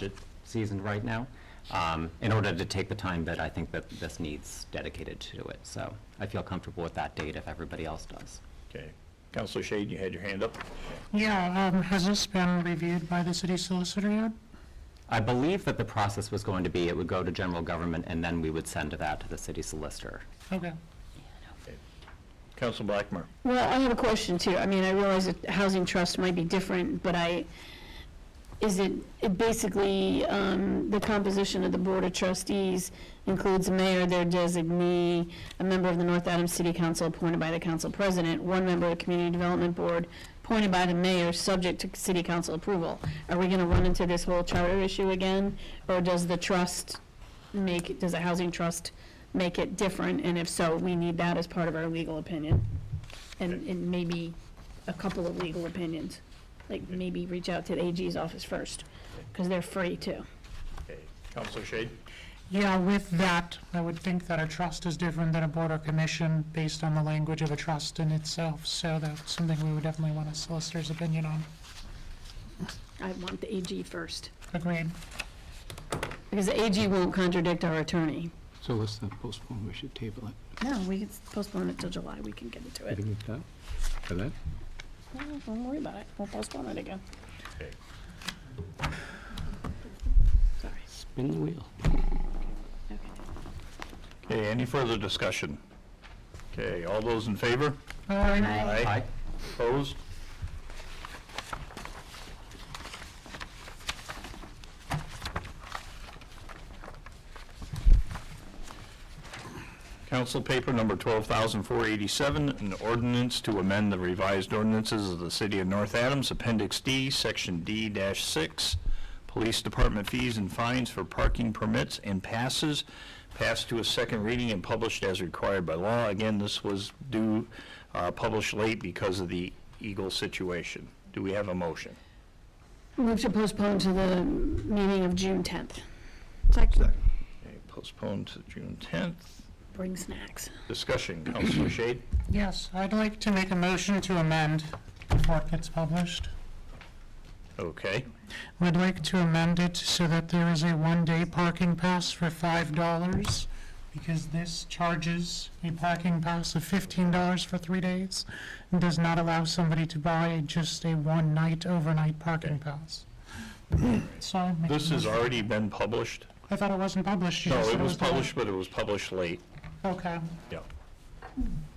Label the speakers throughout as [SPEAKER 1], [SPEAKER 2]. [SPEAKER 1] budget season right now, um, in order to take the time that I think that this needs dedicated to it. So I feel comfortable with that date if everybody else does.
[SPEAKER 2] Okay. Counselor Shade, you had your hand up?
[SPEAKER 3] Yeah, um, has this been reviewed by the city solicitor yet?
[SPEAKER 1] I believe that the process was going to be, it would go to general government, and then we would send that to the city solicitor.
[SPEAKER 3] Okay.
[SPEAKER 2] Counselor Blackmer?
[SPEAKER 4] Well, I have a question too. I mean, I realize that housing trust might be different, but I, is it, it basically, um, the composition of the board of trustees includes a mayor, their designee, a member of the North Adams City Council appointed by the council president, one member of the community development board appointed by the mayor, subject to city council approval. Are we gonna run into this whole charter issue again? Or does the trust make, does the housing trust make it different? And if so, we need that as part of our legal opinion and, and maybe a couple of legal opinions. Like, maybe reach out to the AG's office first, because they're free too.
[SPEAKER 2] Okay. Counselor Shade?
[SPEAKER 3] Yeah, with that, I would think that a trust is different than a board or commission based on the language of a trust in itself, so that's something we would definitely want a solicitor's opinion on.
[SPEAKER 4] I want the AG first,
[SPEAKER 3] Agreed.
[SPEAKER 4] because the AG won't contradict our attorney.
[SPEAKER 5] So let's not postpone, we should table it.
[SPEAKER 4] No, we can postpone it till July, we can get into
[SPEAKER 5] You
[SPEAKER 4] it.
[SPEAKER 5] can make that, for that?
[SPEAKER 4] No, Don't worry about it, we'll postpone it again.
[SPEAKER 2] Okay.
[SPEAKER 4] Sorry,
[SPEAKER 5] Spin the wheel.
[SPEAKER 4] okay.
[SPEAKER 2] Okay, any further discussion? Okay, all those in favor?
[SPEAKER 3] All right,
[SPEAKER 2] Aye. Opposed? Council paper number 12,487, an ordinance to amend the revised ordinances of the City of North Adams, Appendix D, Section D-6, Police Department fees and fines for parking permits and passes, passed to a second reading and published as required by law. Again, this was due, uh, published late because of the Eagle situation. Do we have a motion?
[SPEAKER 4] Move to postpone to the meeting of June tenth.
[SPEAKER 2] Okay, Postponed to June 10th.
[SPEAKER 4] Bring snacks.
[SPEAKER 2] Discussion, Councilor Shade?
[SPEAKER 3] yes, I'd like to make a motion to amend before it gets published.
[SPEAKER 2] Okay.
[SPEAKER 3] We'd like to amend it so that there is a one-day parking pass for five dollars, because this charges a parking pass of fifteen dollars for three days, and does not allow somebody to buy just a one-night overnight parking pass. So. I make a
[SPEAKER 2] This has
[SPEAKER 3] motion-
[SPEAKER 2] already been published?
[SPEAKER 3] I thought it wasn't published. You
[SPEAKER 2] No,
[SPEAKER 3] just
[SPEAKER 2] it
[SPEAKER 3] said
[SPEAKER 2] was
[SPEAKER 3] done.
[SPEAKER 2] published, but it was published late.
[SPEAKER 3] Okay,
[SPEAKER 2] Yeah.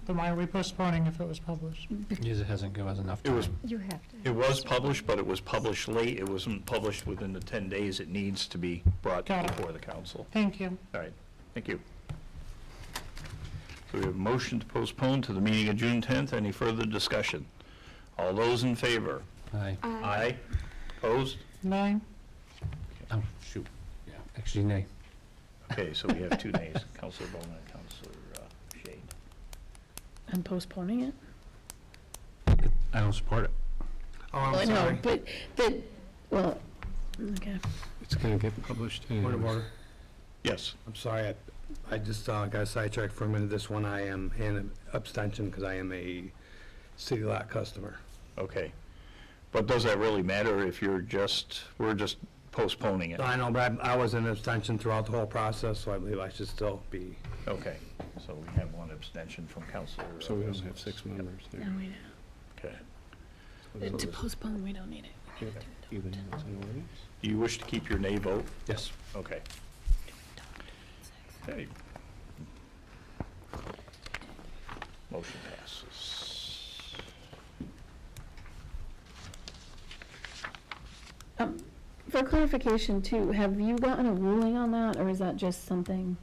[SPEAKER 3] then why are we postponing if it was published?
[SPEAKER 5] Because it hasn't, given us enough
[SPEAKER 2] It was,
[SPEAKER 6] You have to.
[SPEAKER 2] it was published, but it was published late. It wasn't published within the 10 days it needs to be brought
[SPEAKER 3] Hmm. Got it.
[SPEAKER 2] before the council.
[SPEAKER 3] Thank you.
[SPEAKER 2] All right, thank you. So we have a motion to postpone to the meeting of June 10th. Any further discussion? All those in favor?
[SPEAKER 5] Aye.
[SPEAKER 2] Aye. Opposed?
[SPEAKER 3] Nine,
[SPEAKER 5] Oh, shoot. Yeah. Actually, nay.
[SPEAKER 2] Okay, so we have two nays, Counselor Bowman and Counselor uh, Shade.
[SPEAKER 4] I'm postponing it?
[SPEAKER 5] I don't support it.
[SPEAKER 3] Oh,
[SPEAKER 4] Well, No, but, but, well, okay.
[SPEAKER 5] It's gonna get published
[SPEAKER 7] Point of
[SPEAKER 5] anyways.
[SPEAKER 7] order.
[SPEAKER 2] Yes.
[SPEAKER 7] I'm sorry, I- I just uh, got sidetracked for a minute. This one, I am in abstention because I am a city lot customer.
[SPEAKER 2] Okay. But does that really matter if you're just, we're just postponing it?
[SPEAKER 7] I know, but I'm- I was in abstention throughout the whole process, so I believe I should still be.
[SPEAKER 2] Okay, so we have one abstention from Counselor. uh,
[SPEAKER 5] So we don't
[SPEAKER 2] Wilson.
[SPEAKER 5] have six members
[SPEAKER 4] No,
[SPEAKER 5] there.
[SPEAKER 4] we
[SPEAKER 2] Okay.
[SPEAKER 4] don't. To postpone, we don't need it.
[SPEAKER 5] Even though it's an ordinance?
[SPEAKER 2] Do you wish to keep your nay vote?
[SPEAKER 7] Yes.
[SPEAKER 2] Okay. Okay. Motion passes.
[SPEAKER 4] Um, For clarification too, have you gotten a ruling on that, or is that just something?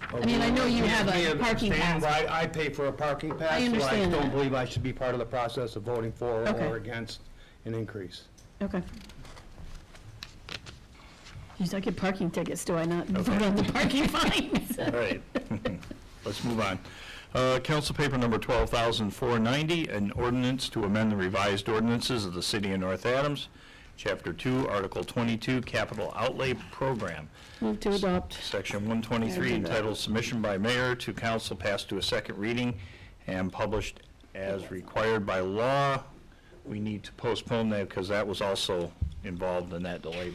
[SPEAKER 4] I mean, I know you have
[SPEAKER 7] uh,
[SPEAKER 4] a parking pass.
[SPEAKER 7] I pay for a parking pass. so
[SPEAKER 4] understand
[SPEAKER 7] I
[SPEAKER 4] that.
[SPEAKER 7] don't believe I should be part of the process of voting for
[SPEAKER 4] Okay.
[SPEAKER 7] or against an increase.
[SPEAKER 4] Okay. Geez, I get parking tickets, do I not
[SPEAKER 2] Okay.
[SPEAKER 4] vote on the parking fines?
[SPEAKER 2] All right, let's move on. Uh, Council paper number 12,490, an ordinance to amend the revised ordinances of the city of North Adams, Chapter 2, Article 22, Capital Outlay Program,
[SPEAKER 4] Move to adopt.
[SPEAKER 2] Section 123, entitled Submission by Mayor to Council, passed to a second reading and published as required by law. We need to postpone that because that was also involved in that delay